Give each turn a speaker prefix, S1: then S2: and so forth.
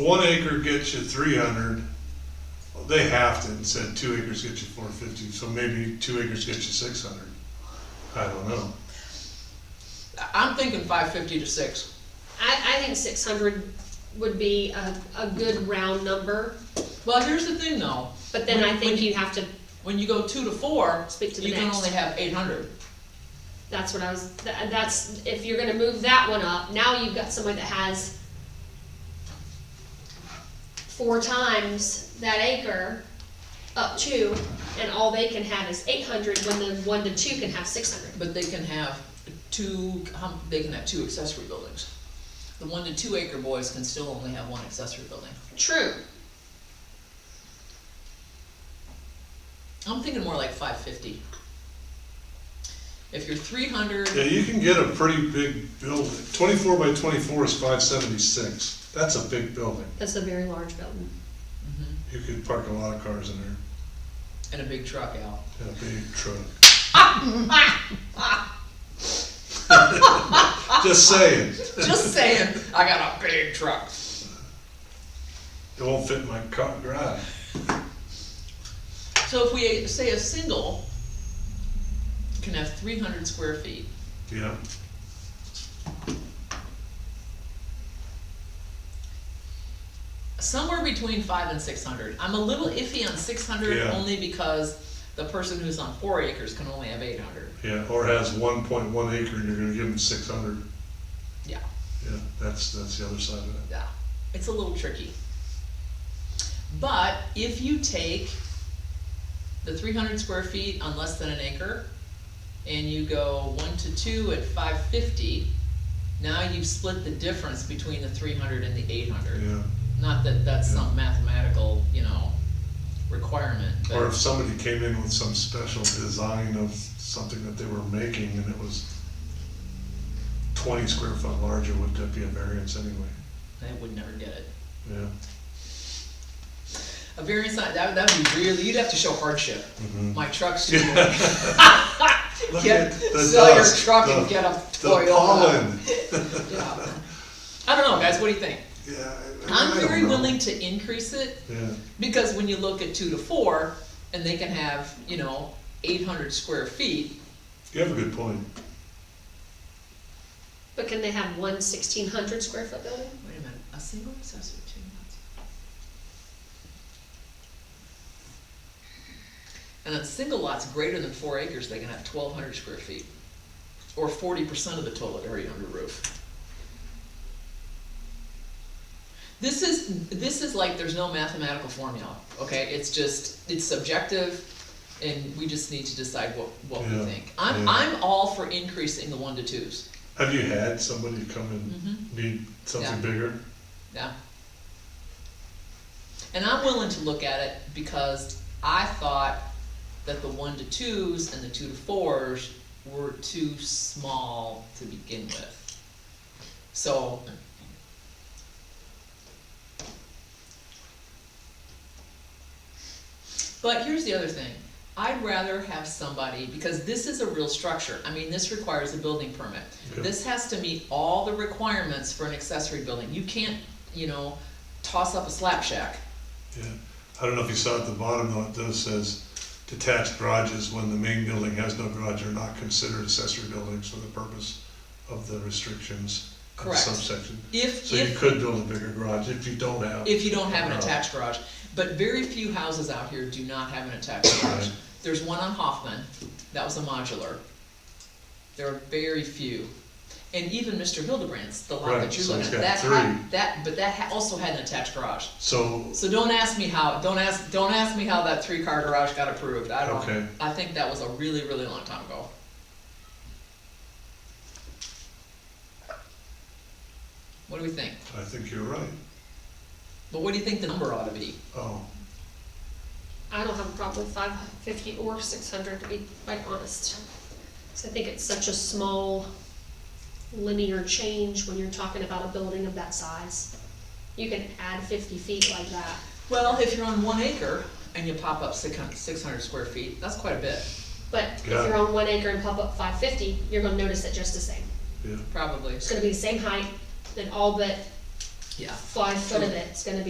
S1: One acre gets you three hundred, they have to, and said two acres get you four fifty, so maybe two acres get you six hundred. I don't know.
S2: I'm thinking five fifty to six.
S3: I, I think six hundred would be a, a good round number,
S2: Well, here's the thing though,
S3: but then I
S2: When-
S3: think
S2: when-
S3: you have to,
S2: when you go two to four,
S3: Speak to the
S2: you can
S3: next.
S2: only have eight hundred.
S3: that's what I was, tha- that's, if you're gonna move that one up, now you've got somebody that has four times that acre up to, and all they can have is eight hundred, when the one to two can have six hundred.
S2: But they can have two, hum- they can have two accessory buildings. The one to two acre boys can still only have one accessory building.
S3: True,
S2: I'm thinking more like five fifty. If you're three hundred,
S1: Yeah, you can get a pretty big building. Twenty-four by twenty-four is five seventy-six. That's a big building.
S3: that's a very large building.
S1: You could park a lot of cars in there,
S2: and a big truck out.
S1: and a big truck. Just saying,
S2: Just saying, I got a big truck.
S1: it won't fit in my car garage.
S2: So if we say a single can have three hundred square feet,
S1: Yeah,
S2: somewhere between five and six hundred. I'm a little iffy on six hundred
S1: Yeah.
S2: only because the person who's on four acres can only have eight hundred.
S1: yeah, or has one point one acre and you're gonna give them six hundred.
S2: Yeah.
S1: Yeah, that's, that's the other side of it.
S2: Yeah, it's a little tricky. But if you take the three hundred square feet on less than an acre, and you go one to two at five fifty, now you've split the difference between the three hundred and the eight hundred.
S1: Yeah,
S2: Not that that's
S1: Yeah.
S2: some mathematical, you know, requirement,
S1: or if
S2: but,
S1: somebody came in with some special design of something that they were making and it was twenty square foot larger, would that be a variance anyway?
S2: I would never get it.
S1: Yeah.
S2: A variance, not- that, that would be really, you'd have to show hardship. My truck's too big.
S1: Mm-hmm. Look at
S2: Get,
S1: the
S2: sell your
S1: dust,
S2: truck
S1: the-
S2: and get a
S1: The
S2: Toyota.
S1: pollen,
S2: Yeah. I don't know, guys, what do you think?
S1: yeah. I- I
S2: I'm
S1: don't
S2: very
S1: know.
S2: willing to increase it,
S1: Yeah,
S2: because when you look at two to four, and they can have, you know, eight hundred square feet,
S1: you have a good point.
S3: But can they have one sixteen hundred square foot building?
S2: wait a minute, a single accessory two lots. And on single lots greater than four acres, they can have twelve hundred square feet, or forty percent of the total area under roof. This is, this is like, there's no mathematical formula, okay, it's just, it's subjective, and we just need to decide what, what we
S1: Yeah,
S2: think. I'm,
S1: yeah.
S2: I'm all for increasing the one to twos,
S1: Have you had somebody come
S2: Mhm.
S1: and need something
S2: Yeah.
S1: bigger?
S2: Yeah. And I'm willing to look at it because I thought that the one to twos and the two to fours were too small to begin with. So. But here's the other thing, I'd rather have somebody, because this is a real structure, I mean, this requires a building permit.
S1: Okay.
S2: This has to meet all the requirements for an accessory building, you can't, you know, toss up a slap shack.
S1: Yeah, I don't know if you saw at the bottom though, it does says detached garages when the main building has no garage are not considered accessory buildings for the purpose of the restrictions of the
S2: Correct.
S1: subsection.
S2: If,
S1: So you
S2: if,
S1: could build a bigger garage if you don't have.
S2: if you don't have an
S1: No.
S2: attached garage, but very few houses out here do not have an attached garage.
S1: Right.
S2: There's one on Hoffman, that was a modular. There are very few. And even Mr. Hildebrand's, the lot
S1: Right,
S2: that you're
S1: so he's
S2: looking at, that
S1: got
S2: had, that, but that ha- also had an attached garage.
S1: So,
S2: So don't ask me how, don't ask, don't ask me how that three-car garage got approved, I
S1: Okay.
S2: don't, I think that was a really, really long time ago. What do we think?
S1: I think you're right.
S2: But what do you think the number ought to be?
S1: Oh,
S3: I don't have a problem with five fifty or six hundred, to be quite honest. So I think it's such a small linear change when you're talking about a building of that size. You can add fifty feet like that.
S2: Well, if you're on one acre and you pop up six hundred square feet, that's quite a bit,
S3: But if
S1: Yeah.
S3: you're on one acre and pop up five fifty, you're gonna notice it just the same.
S1: yeah,
S2: probably.
S3: It's gonna be the same height, then all but
S2: yeah.
S3: five foot of it's gonna be